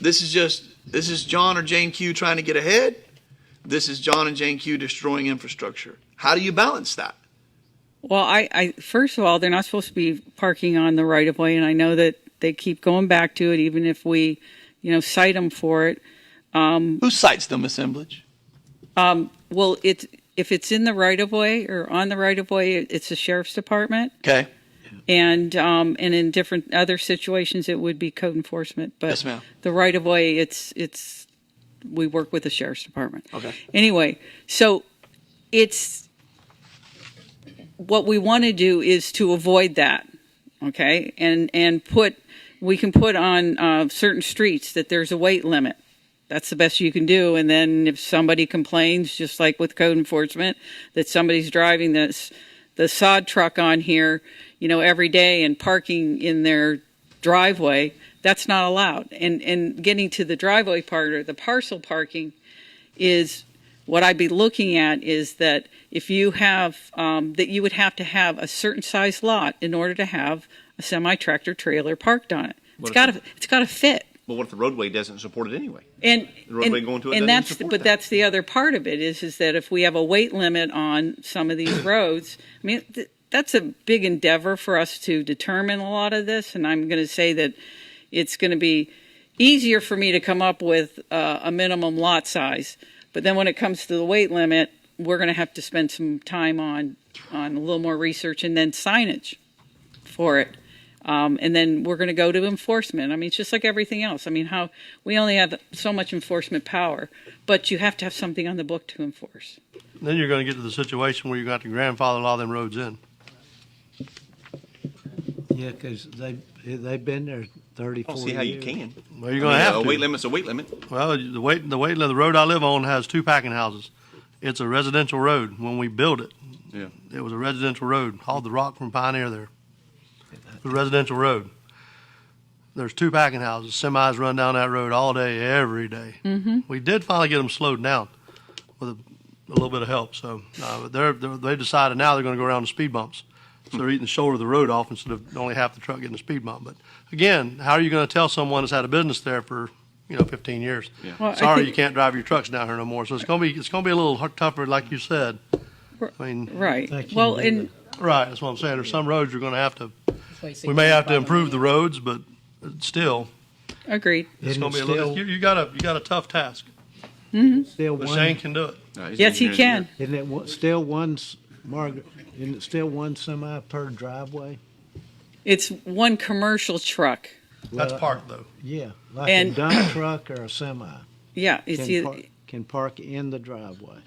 This is just this is John or Jane Q trying to get ahead. This is John and Jane Q destroying infrastructure. How do you balance that? Well, I, I first of all, they're not supposed to be parking on the right of way, and I know that they keep going back to it, even if we, you know, cite them for it. Who cites them assemblage? Well, it's if it's in the right of way or on the right of way, it's the sheriff's department, Okay. and um, and in different other situations, it would be code enforcement. But Yes, ma'am. the right of way, it's it's we work with the sheriff's department. Okay. Anyway, so it's what we want to do is to avoid that. Okay, and and put we can put on uh, certain streets that there's a weight limit. That's the best you can do. And then if somebody complains, just like with code enforcement, that somebody's driving this the sod truck on here, you know, every day and parking in their driveway, that's not allowed. And and getting to the driveway part or the parcel parking is what I'd be looking at is that if you have, um, that you would have to have a certain size lot in order to have a semi tractor trailer parked on it. It's if got to, it's got to fit. Well, what if the roadway doesn't support it anyway? And, roadway and, going to it doesn't and that's, support but that. that's the other part of it is, is that if we have a weight limit on some of these roads, I mean, th- that's a big endeavor for us to determine a lot of this. And I'm going to say that it's going to be easier for me to come up with uh, a minimum lot size. But then when it comes to the weight limit, we're going to have to spend some time on, on a little more research and then signage for it. Um, and then we're going to go to enforcement. I mean, it's just like everything else. I mean, how we only have so much enforcement power, but you have to have something on the book to enforce. Then you're going to get to the situation where you got to grandfather a lot of them roads in. Yeah, because they, they've been there thirty, I don't forty see how you years. can. Well, Oh, you're I going mean, to have a to. weight limit's a weight limit. Well, the weight, the weight, the road I live on has two packing houses. It's a residential road. When we built it, Yeah. it was a residential road. Hauled the rock from Pioneer there. It was a residential road. There's two packing houses. Semis run down that road all day, every Mm-hmm. We did finally get them slowed down with a, a little bit of help. So uh, but they're, they're, they decided now they're going to go around the speed bumps. So they're eating the shoulder of the road off instead of only half the truck getting the speed bump. But again, how are you going to tell someone that's had a business there for you know 15 years? Well, I Sorry, think- you can't drive your trucks down here no more. So it's going to be it's going to be a little hard- tougher, like you said. I mean, Right. Thank you, Well, Linda. and right? That's what I'm saying. There's some roads you're going to have to. We may have to improve the roads, but still, agreed. it's Isn't going to it be a little. still- You, you got a you got a tough task, Still but Shane one, can do it. No, he's Yes, he an engineer. can. isn't it, one- still one, s- Margaret, isn't it still one semi per driveway? It's one commercial truck. That's Well, part though. Yeah, like a And- dump truck or a semi Yeah. It's can either, park, can park in the driveway.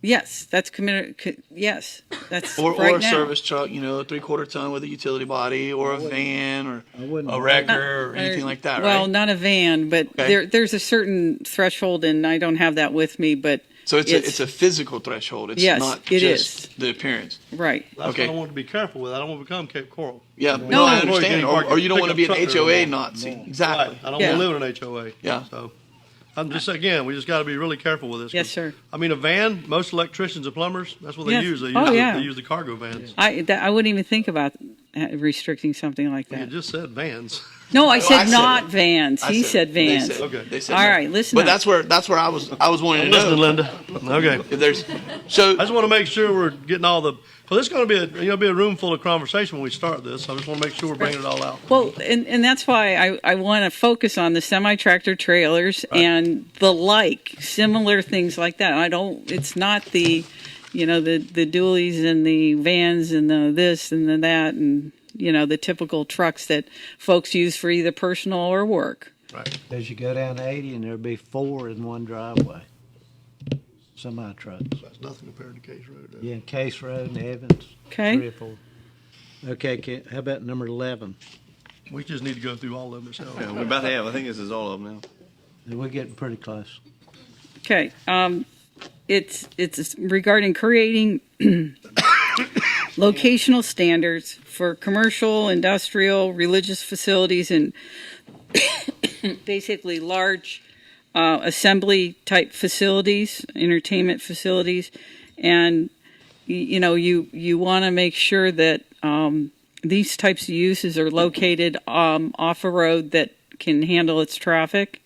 yes, that's committed. co- Yes, that's Or, right or a now. service truck, you know, a three quarter ton with a utility body or a van or I wouldn't- a wrecker or anything like that, Well, right? not a van, but Okay. there, there's a certain threshold, and I don't have that with me, but so it's, it's- a, it's a physical threshold. It's Yes, not it just the appearance. right. That's Okay. what I want to be careful with. I don't want to become Cape Coral. Yeah, no, No. I understand. Or, or you don't Pick want to up be an trucker HOA tomorrow. Nazi. Right. Exactly. I don't Yeah. want to live in an HOA. Yeah. So I'm just again, we just got to be really careful with this. Yes, 'cause, sir. I mean, a van. Most electricians and plumbers, that's what they Yes. use. They use, Oh, the, yeah. they use the cargo vans. I that, I wouldn't even think about uh, restricting something like You that. just said vans. No, I said Oh, I said not it. vans. I He said they vans. said- Okay. They said All no. right, listen But up. that's where that's where I was I was wanting to Listen, know Linda. Okay. if there's so I just want to make sure we're getting all the. So this is going to be a you know be a room full of conversation when we start this. I just want to make sure we're bringing it all out. Well, and, and that's why I, I want to focus on the semi tractor trailers and the like, similar things like that. I don't, it's not the, you know, the, the dualies and the vans and the this and the that and, you know, the typical trucks that folks use for either personal or work. Right. As you go down eighty and there'd be four in one driveway. Semi trucks, That's nothing compared to Case Road. yeah, Case Road and Evans, three Okay. or four. Okay, can, how about number eleven? We just need to go through all of them ourselves. Yeah, we're about to have. I think this is all of them now. We're getting pretty close. Okay. Um, it's, it's regarding creating locational standards for commercial, industrial, religious facilities, and basically large uh, assembly type facilities, entertainment facilities. And, y- you know, you, you want to make sure that um, these types of uses are located um, off a road that can handle its traffic.